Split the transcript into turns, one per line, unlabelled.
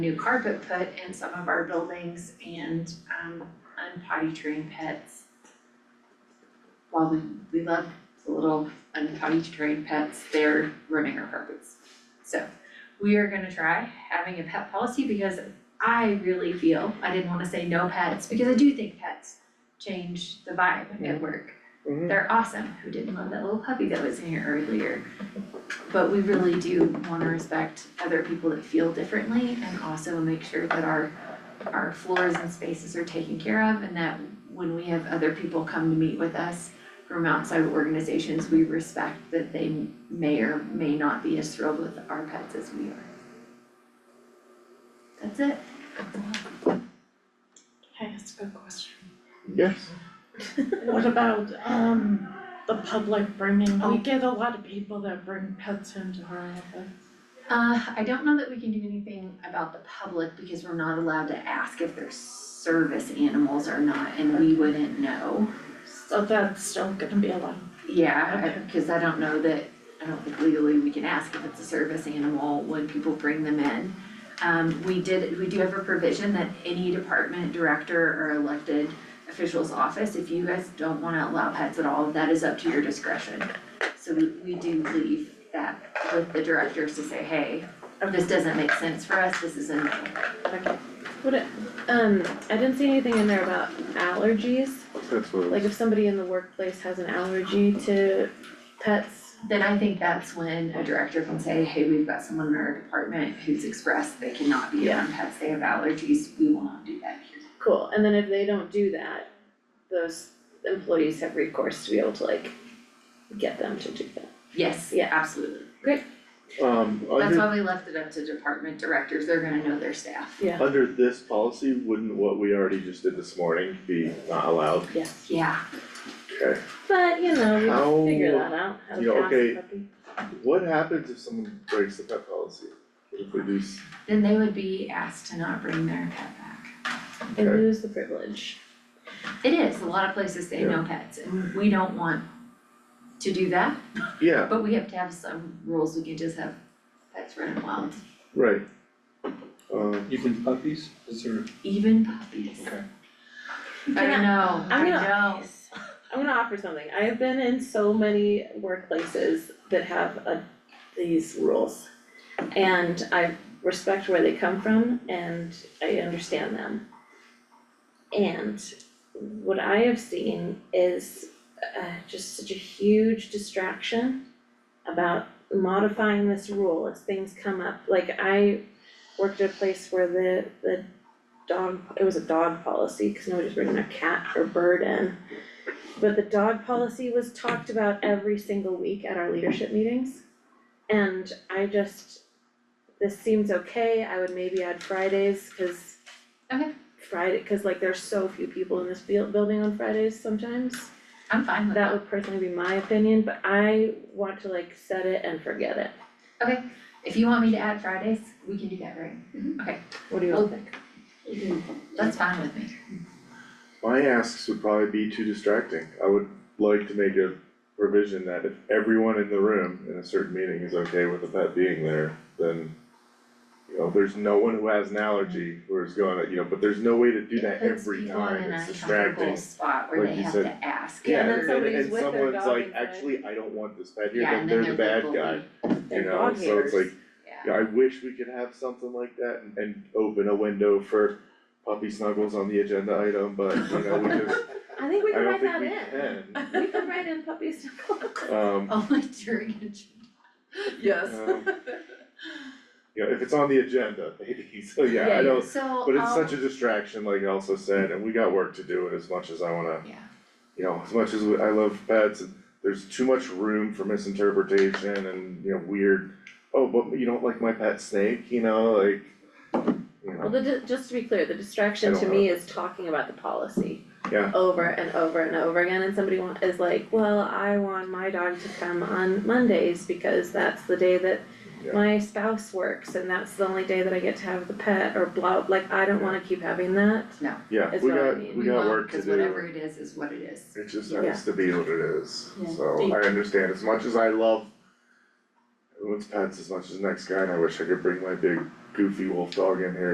new carpet put in some of our buildings and um unpotty trained pets. While we we love the little unpotty trained pets, they're ruining our carpets. So we are gonna try having a pet policy because I really feel, I didn't wanna say no pets, because I do think pets change the vibe at work.
Mhm.
They're awesome, who didn't love that little puppy that was in here earlier? But we really do wanna respect other people that feel differently and also make sure that our our floors and spaces are taken care of and that when we have other people come to meet with us from outside organizations, we respect that they may or may not be as thrilled with our pets as we are. That's it.
Can I ask a question?
Yes,
What about, um, the public bringing,
Oh.
we get a lot of people that bring pets into our office.
Uh, I don't know that we can do anything about the public because we're not allowed to ask if they're service animals or not, and we wouldn't know.
So that's still gonna be allowed.
Yeah,
Okay.
I- cause I don't know that, I don't think legally we can ask if it's a service animal when people bring them in. Um, we did, we do have a provision that any department director or elected official's office, if you guys don't wanna allow pets at all, that is up to your discretion. So we, we do leave that with the directors to say, hey, this doesn't make sense for us, this is a no.
Okay. What, it- um, I didn't see anything in there about allergies,
that's what,
like
it
if somebody in the workplace has an allergy to pets.
Then I think that's when a director can say, hey, we've got someone in our department who's expressed they cannot be around pets, they have allergies, we will not do that here.
Cool, and then if they don't do that, those employees have recourse to be able to like get them to do that.
Yes, yeah,
Yeah.
absolutely.
was. Um,
That's
under,
why we left it up to department directors, they're gonna know their staff.
Yeah.
under this policy, wouldn't what we already just did this morning be not allowed?
Yeah,
Okay,
But, you know, we figure
how,
that out, how
you know,
to ask
okay.
a puppy.
what happens if someone breaks the pet policy? What If we do, s-
then they would be asked to not bring their pet back.
And
Okay.
lose the privilege.
It is, a lot of places say no pets, and we don't want to do that,
yeah,
but we have to have some rules, we can just have pets running wild,
right. Um,
Even puppies, is there,
even puppies.
Okay.
I don't know, I
I'm
know.
gonna- I'm gonna offer something, I have been in so many workplaces that have a, these rules. And I respect where they come from and I understand them. And what I have seen is uh just such a huge distraction about modifying this rule as things come up, like I worked at a place where the the dog, it was a dog policy, cause nobody was bringing their cat or bird in. But the dog policy was talked about every single week at our leadership meetings. And I just, this seems okay, I would maybe add Fridays, cause
Okay.
Friday, cause like there's so few people in this buil- building on Fridays sometimes.
I'm fine with
That
that,
would personally be my opinion, but I want to like set it and forget it.
okay, if you want me to add Fridays, we can do that, right?
What do you all think?
That's fine with me.
my asks would probably be too distracting, I would like to make a provision that if everyone in the room in a certain meeting is okay with a pet being there, then. You know, there's no one who has an allergy or is going, you know, but there's no way to do that every time, it's
Puts people in an uncomfortable
distracting.
spot where
Like
they
you
have
said.
to ask.
Yeah, and then
and-
somebody's
and
with their
someone's
dog
like,
inside.
actually, I don't want this pet here,
Yeah,
then
and then
they're the
they're
bad
the
guy,
bully.
you
They're
know,
dog
so it's
haters.
like,
Yeah,
yeah, I wish we could have something like that and and open a window for puppy snuggles on the agenda item, but you know, we just,
I think
I
we can
don't
write
think
that
we
in.
can,
We can write in puppies.
um,
only during a. Yes.
um, You know, if it's on the agenda, maybe, so yeah, I
Yeah,
don't,
So,
but it's
um,
such a distraction, like I also said, and we got work to do, and as much as I wanna
yeah,
you know, as much as we- I love pets, there's too much room for misinterpretation and, you know, weird, oh, but you don't like my pet snake, you know, like, you know,
Well, the, di- just to be clear, the distraction
I
to
don't
me is talking about the policy.
Yeah.
Over and over and over again, and somebody want, is like, well, I want my dog to come on Mondays because that's the day that
Yeah.
my spouse works and that's the only day that I get to have the pet or blah, like, I don't wanna keep having that.
yeah,
Is
we
what I
got,
mean.
we
we
got
will,
work to
cause
do.
whatever it is, is what it is.
It just
Yeah.
has to be what it is,
Yeah.
so I understand, as much as I love everyone's pets as much as the next guy, and I wish I could bring my big goofy wolf dog in here